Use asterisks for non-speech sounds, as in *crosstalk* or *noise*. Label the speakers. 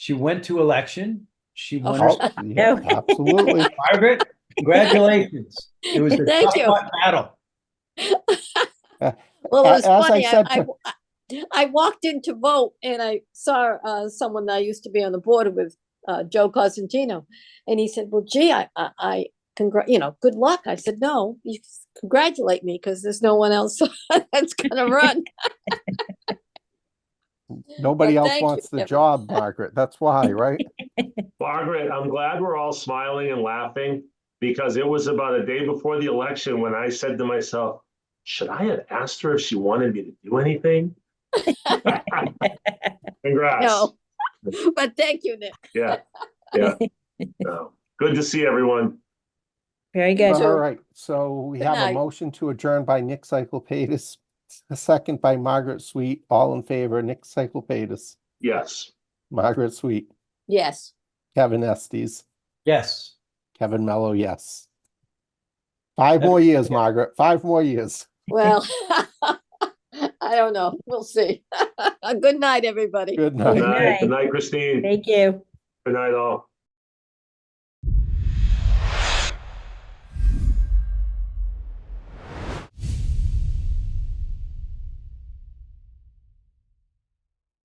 Speaker 1: She went to election. She
Speaker 2: Of
Speaker 1: won. her
Speaker 2: course.
Speaker 3: Oh,
Speaker 1: seat.
Speaker 2: *laughs*
Speaker 3: yeah, Absolutely.
Speaker 1: Margaret, congratulations. It
Speaker 2: *laughs*
Speaker 1: was a
Speaker 2: Thank
Speaker 1: tough
Speaker 2: you.
Speaker 1: fought battle.
Speaker 2: Well, it
Speaker 3: A-
Speaker 2: was
Speaker 3: as I
Speaker 2: funny. I,
Speaker 3: said
Speaker 2: I,
Speaker 3: to-
Speaker 2: I- I walked in to vote and I saw uh, someone that I used to be on the board with, uh, Joe Cosentino. And he said, well, gee, I, I, I congr- you know, good luck. I said, no, you s- congratulate me because there's no one else *laughs* that's
Speaker 3: *laughs*
Speaker 2: gonna run.
Speaker 3: Nobody
Speaker 2: Well,
Speaker 3: else
Speaker 2: thank you,
Speaker 3: wants the
Speaker 2: Kevin.
Speaker 3: job, Margaret. That's why,
Speaker 2: *laughs*
Speaker 3: right?
Speaker 4: Margaret, I'm glad we're all smiling and laughing because it was about a day before the election when I said to myself, should I have asked her if she wanted me to
Speaker 5: *laughs*
Speaker 4: do anything? Congrats.
Speaker 2: No. But thank you, Nick.
Speaker 4: Yeah,
Speaker 5: *laughs*
Speaker 4: yeah. No. Good to see everyone.
Speaker 5: Very good.
Speaker 3: All right, so we
Speaker 2: Good
Speaker 3: have a
Speaker 2: night.
Speaker 3: motion to adjourn by Nick Cyclepatis, a second by Margaret Sweet. All in favor, Nick Cyclepatis,
Speaker 4: Yes.
Speaker 3: Margaret Sweet,
Speaker 2: Yes.
Speaker 3: Kevin Estes,
Speaker 1: Yes.
Speaker 3: Kevin Mello, yes. Five more years, Margaret, five more years.
Speaker 2: Well, *laughs* I don't know. We'll see. *laughs* Good night, everybody.
Speaker 3: Good
Speaker 4: Good
Speaker 3: night.
Speaker 4: night.
Speaker 5: night.
Speaker 4: Good night, Christine.
Speaker 5: Thank you.
Speaker 4: Good night, all.